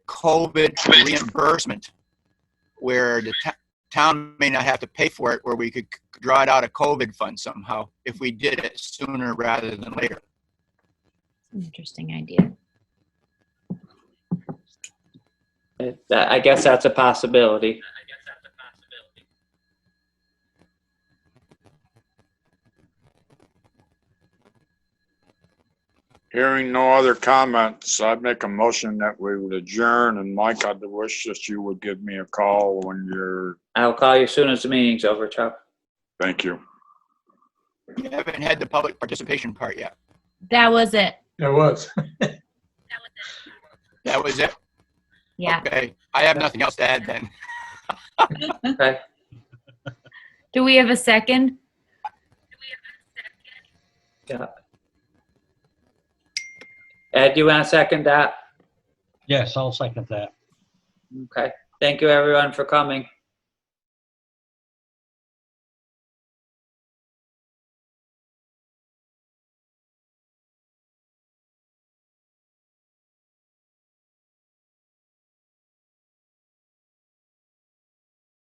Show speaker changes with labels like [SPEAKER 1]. [SPEAKER 1] COVID reimbursement where the to- town may not have to pay for it, where we could c- draw it out of COVID fund somehow if we did it sooner rather than later.
[SPEAKER 2] Interesting idea.
[SPEAKER 3] Uh, that- I guess that's a possibility.
[SPEAKER 4] Hearing no other comments, I'd make a motion that we would adjourn. And Mike, I'd wish that you would give me a call when you're,
[SPEAKER 3] I'll call you as soon as the meeting's over, Chuck.
[SPEAKER 4] thank you.
[SPEAKER 1] You haven't had the public participation part yet.
[SPEAKER 2] That was it.
[SPEAKER 5] It was.
[SPEAKER 1] That was it?
[SPEAKER 2] Yeah.
[SPEAKER 1] Okay. I have nothing else to add then.
[SPEAKER 3] Okay.
[SPEAKER 2] Do we have a second?
[SPEAKER 3] Yeah. Ed, you want to second that?
[SPEAKER 6] Yes, I'll second that.
[SPEAKER 3] Okay. Thank you, everyone, for coming.